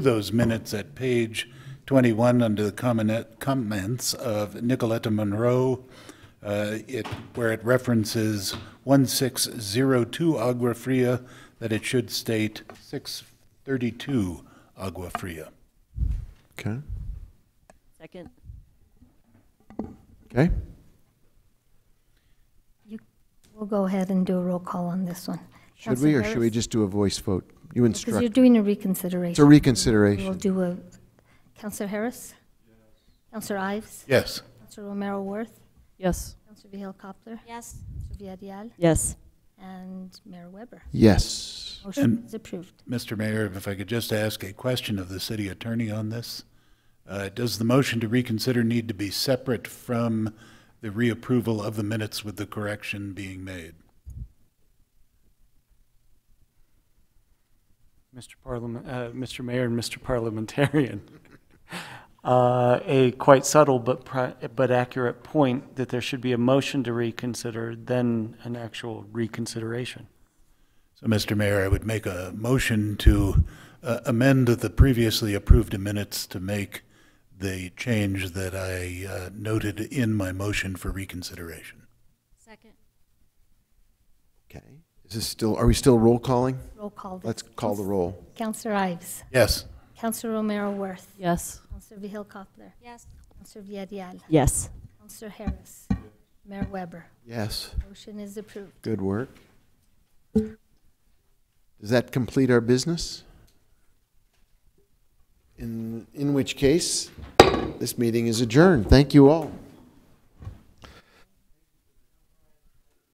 those minutes at page 21 under the comment- comments of Nicoletta Monroe, uh, it- where it references 1602 Agua Fria, that it should state 632 Agua Fria. Okay. Second. Okay. We'll go ahead and do a roll call on this one. Should we, or Counselor should we Harris? just do a voice vote? You Because you're instruct. doing a It's a reconsideration. We'll reconsideration. do a, Counselor Harris? Counselor Ives? Yes. Counselor Romero Worth? Yes. Counselor Vihil Coppler? Yes. Counselor Viadiel? Yes. And Mayor Weber. Yes. Motion is approved. Mr. Mayor, if I could just ask a question of the city attorney on this. Uh, Does the motion to reconsider need to be separate from the reapproval of the minutes with the correction being made? Mr. Parliament, uh, Mr. Mayor and Mr. Parliamentarian. Uh, a quite subtle but pri- but accurate point that there should be a motion to reconsider, then an actual reconsideration. So, Mr. Mayor, I would make a motion to uh, amend the previously approved minutes to make the change that I uh, noted in my motion for reconsideration. Second. Okay. Is this still, are we still roll calling? Roll call. Let's call the roll. Counselor Ives? Yes. Counselor Romero Worth? Yes. Counselor Vihil Coppler? Yes. Counselor Viadiel? Yes. Counselor Harris? Mayor Weber. Yes. Motion is approved. Good work. Does that complete our business? In, in which case, this meeting is adjourned. Thank you all.